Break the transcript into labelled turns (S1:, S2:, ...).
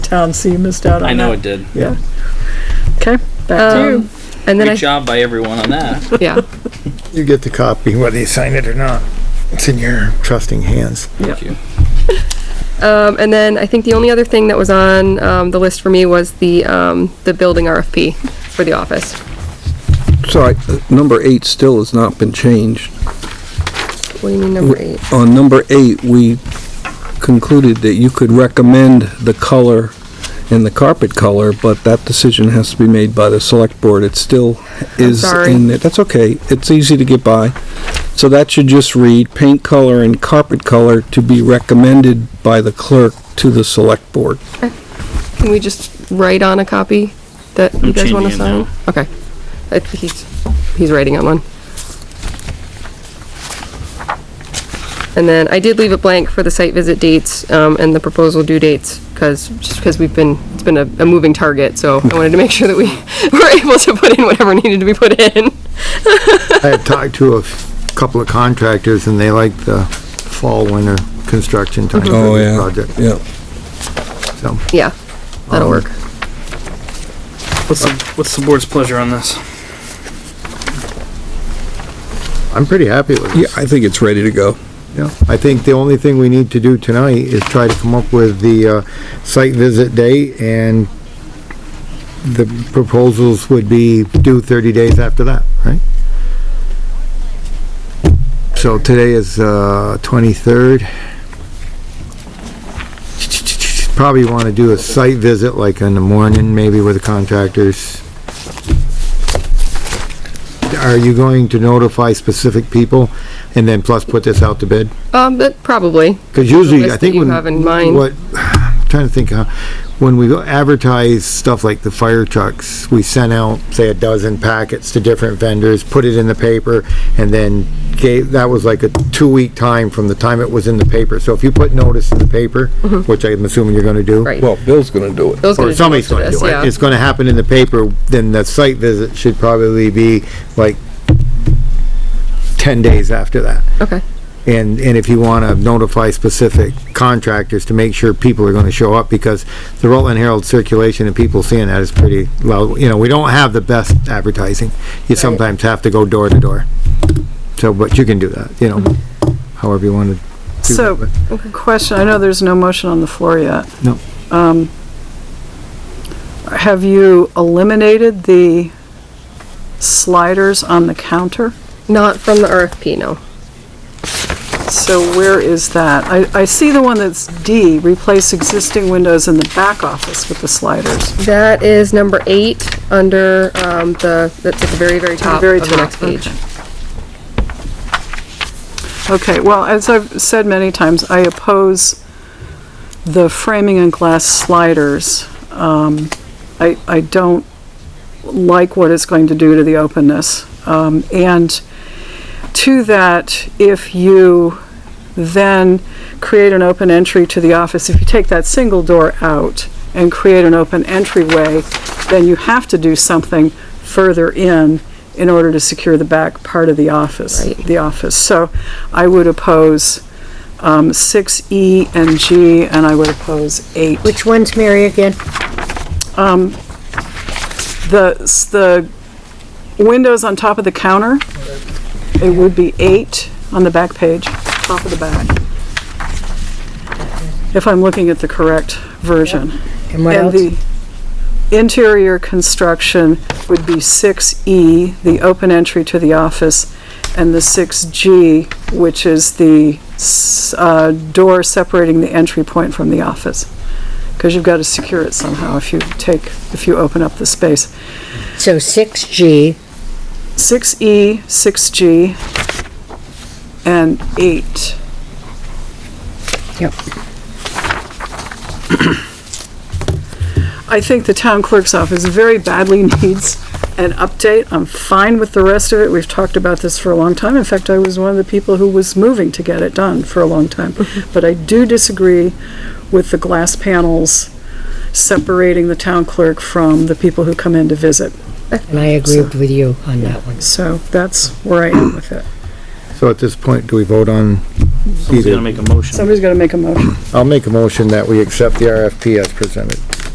S1: town, so you missed out on
S2: I
S1: that. Uh,
S2: know it did.
S1: Yeah.
S3: Okay.
S1: Back to you.
S3: Um, And then
S2: Good
S3: I,
S2: job by everyone on that.
S3: yeah,
S4: You get the copy, whether you sign it or not. It's in your trusting hands.
S2: Thank you.
S3: um, and then I think the only other thing that was on, um, the list for me was the, um, the building RFP for the office.
S5: So I- number eight still has not been changed.
S3: What do you mean number eight?
S5: On number eight, we concluded that you could recommend the color and the carpet color, but that decision has to be made by the select board. It still is
S3: sorry.
S5: in there. That's okay. It's easy to get by. So that should just read paint color and carpet color to be recommended by the clerk to the select board.
S3: Can we just write on a copy that you
S2: I'm
S3: guys wanna
S2: changing it
S3: sign?
S2: now.
S3: Okay. I think he's, he's writing on one. And then I did leave it blank for the site visit dates, um, and the proposal due dates, cause, just because we've been, it's been a, a moving target, so I wanted to make sure that we were able to put in whatever needed to be put in.
S4: I had talked to a couple of contractors and they like the fall, winter construction time
S3: Mm-hmm. Oh,
S4: for this project,
S5: Oh, Yeah.
S4: so.
S3: Yeah, that'll
S4: Um,
S3: work.
S2: What's the, what's the board's pleasure on this?
S4: I'm pretty happy with
S5: Yeah,
S4: it.
S5: I think it's ready to go.
S4: Yeah. I think the only thing we need to do tonight is try to come up with the, uh, site visit date and the proposals would be due thirty days after that, right? So today is, uh, twenty-third. Probably wanna do a site visit like in the morning, maybe with the contractors. Are you going to notify specific people and then plus put this out to bid?
S3: Um, but probably,
S4: Cause usually,
S3: list
S4: I
S3: that
S4: think
S3: you
S4: when.
S3: have in mind.
S4: What, I'm trying to think, how when we go advertise stuff like the fire trucks, we sent out, say, a dozen packets to different vendors, put it in the paper, and then gave, that was like a two-week time from the time it was in the paper. So if you put notice in the paper, which I'm assuming you're gonna do.
S3: Mm-hmm. right.
S5: Well, Bill's gonna do it.
S3: Bill's gonna
S4: Or
S3: do
S4: somebody's
S3: most of
S4: gonna
S3: this,
S4: do
S3: yeah.
S4: it. It's gonna happen in the paper, then the site visit should probably be like ten days after that.
S3: Okay,
S4: And, and if you want to notify specific contractors to make sure people are going to show up, because the Rutland Herald circulation and people seeing that is pretty loud. You know, we don't have the best advertising. You sometimes have to go door to door. So, but you can do that, you know, however you want to.
S1: So, question, I know there's no motion on the floor yet.
S4: No.
S1: Um, Have you eliminated the sliders on the counter?
S3: not from the RFP, no.
S1: So where is that? I, I see the one that's D, replace existing windows in the back office with the sliders.
S3: That is number eight, under, um, the, that's at the very, very top
S1: very
S3: of the
S1: top,
S3: next page.
S1: Okay, well, as I've said many times, I oppose the framing and glass sliders. Um, I, I don't like what it's going to do to the openness. Um, and to that, if you then create an open entry to the office, if you take that single door out and create an open entryway, then you have to do something further in in order to secure the back part of the office,
S3: Right.
S1: the office. So I would oppose um, 6E and G, and I would oppose 8.
S6: Which one's Mary again?
S1: The, s- the windows on top of the counter, it would be eight on the back page, top of the back. If I'm looking at the correct version.
S6: And what else?
S1: And the interior construction would be 6E, the open entry to the office, and the 6G, which is the s- uh, door separating the entry point from the office. Because you've got to secure it somehow if you take, if you open up the space.
S6: So 6G,
S1: 6E, 6G, E, and 8.
S6: Yep.
S1: I think the town clerk's office very badly needs an update. I'm fine with the rest of it. We've talked about this for a long time. In fact, I was one of the people who was moving to get it done for a long time. But I do disagree with the glass panels separating the town clerk from the people who come in to visit.
S6: and I agreed with you on that one.
S1: So that's where I am with it.
S4: So at this point, do we vote on
S2: Someone's gonna
S4: either?
S2: make a motion.
S1: Somebody's got to make a motion.
S4: I'll make a motion that we accept the RFP as presented.